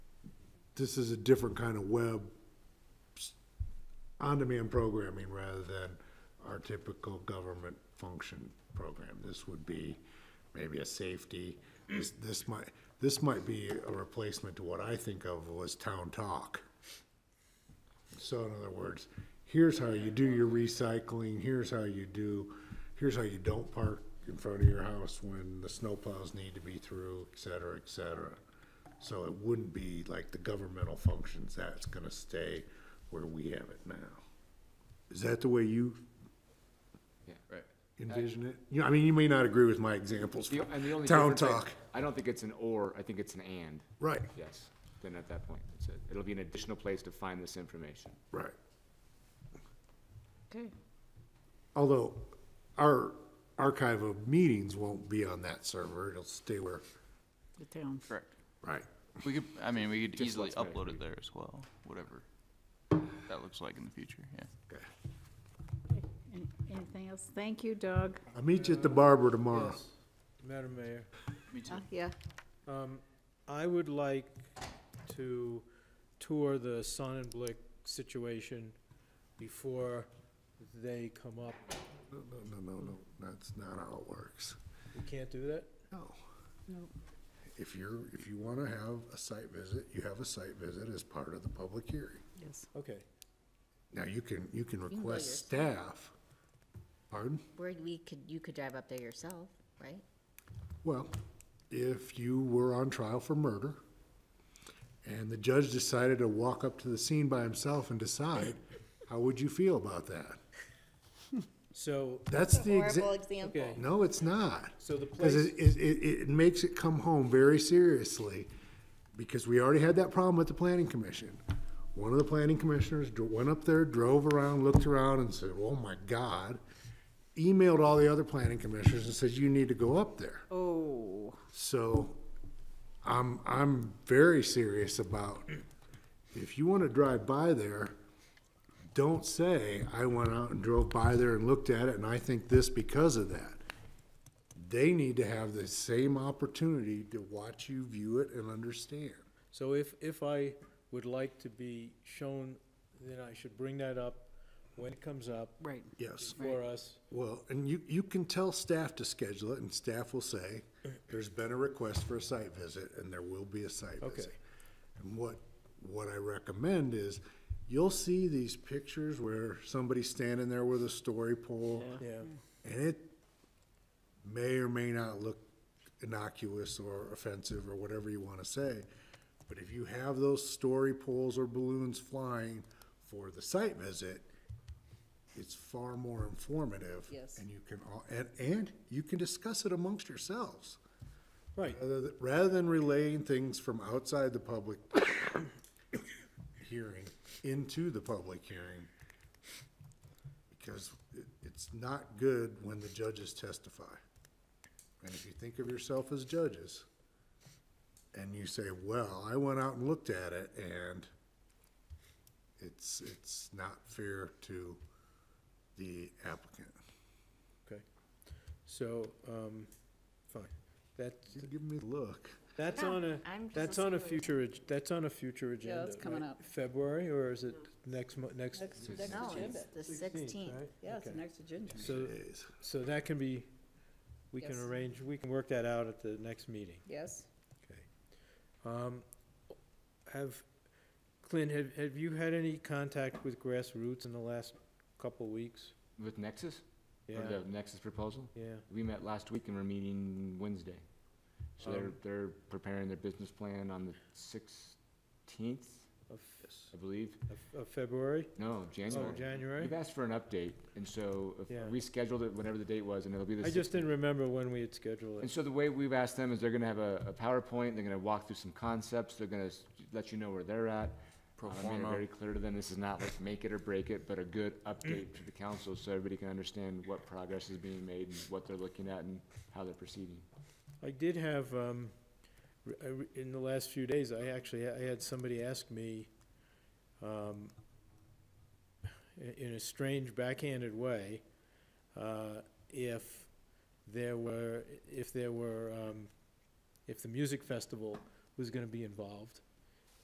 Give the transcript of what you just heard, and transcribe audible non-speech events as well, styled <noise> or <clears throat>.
this is a different kind of web, s- on-demand programming rather than our typical government function program. This would be maybe a safety, this, this might, this might be a replacement to what I think of was town talk. So in other words, here's how you do your recycling, here's how you do, here's how you don't park in front of your house when the snowplows need to be through, et cetera, et cetera. So it wouldn't be like the governmental functions, that's gonna stay where we have it now. Is that the way you Yeah, right. envision it? You know, I mean, you may not agree with my examples The- from and the only town difference I- talk, I don't think it's an or, I think it's an and, right, yes, then at that point, it's a, it'll be an additional place to find this information. right. Okay. Although our archive of meetings won't be on that server, it'll stay where, The town. Correct. right. We could, I mean, we could Just easily what's better upload for it there as well, whatever that looks like in the future, yeah. Okay. Any- Anything else? Thank you, Doug. I'll meet you at the barber tomorrow. Yes, Oh, Madam Mayor, Me too. Yeah. um, I would like to tour the Sonnenblick situation before they come up. No, no, no, no, no, that's not how it works. We can't do that? No. No. If you're, if you wanna have a site visit, you have a site visit as part of the public hearing. Yes. Okay, Now, you can, you can can go request staff. Pardon? Where we could, you could drive up there yourself, right? Well, if you were on trial for murder and the judge decided to walk up to the scene by himself and decide, how would you feel about that? so, That's the Horrible example. example. okay, No, it's not. so the Because place, it, it, it, it makes it come home very seriously, because we already had that problem with the planning commission. One of the planning commissioners dro- went up there, drove around, looked around and said, oh my God. Emailed all the other planning commissioners and said, you need to go up there. Oh, So I'm, I'm very serious about, if you want to drive by there, don't say, I went out and drove by there and looked at it and I think this because of that. They need to have the same opportunity to watch you view it and understand. so if, if I would like to be shown, then I should bring that up when it comes up right. Yes. for us. Well, and you, you can tell staff to schedule it, and staff will <clears throat> say, there's been a request for a site visit, and there will be a site Okay. visit. And what, what I recommend is, you'll see these pictures where somebody's standing there with a story pole, Yeah, and it may or may not look innocuous or offensive or whatever you want to say. But if you have those story poles or balloons flying for the site visit, it's far more informative. Yes. And you can, all and, and you can discuss it amongst yourselves. right, Rather th- Rather than relaying things from outside the public <coughs> hearing into the public hearing, because it, it's not good when the judges testify. And if you think of yourself as judges, and you say, well, I went out and looked at it, and it's, it's not fair to the applicant. okay. So, um, fine, that, She's giving me the look. That's on a, I'm just that's on a listening. future, ag- that's on a future agenda. it's coming right? up. February, or is it next mo, next? Next No, agenda. it's the sixteenth. right? Yeah, it's Okay. next agenda. So, Jeez. so that can be, we can Yes. arrange, we can work that out at the next meeting. Yes. Okay. Um, Have, Clint, have, have you had any contact with grassroots in the last couple weeks? With Nexus, Yeah, or the Nexus proposal, yeah, we met last week and we're meeting Wednesday. So they're, Um, they're preparing their business plan on the sixteenth, of, I believe, of- of February? no, Oh, January. January? We've asked for an update, and so if Yeah. we scheduled it whenever the date was, and it'll be the I sixteenth. just didn't remember when we had scheduled And it. so the way we've asked them is they're gonna have a, a PowerPoint, they're gonna walk through some concepts, they're gonna s- let you know where they're at. Pro Uh, I made it forma. very clear to them, this is not like make it or break it, but a good update to the council so everybody can understand what progress is being made and what they're looking at and how they're proceeding. I did have, um, re- I re- in the last few days, I actually, I had somebody ask me, um, i- in a strange backhanded way, uh, if there were, if there were, um, if the music festival was gonna be involved.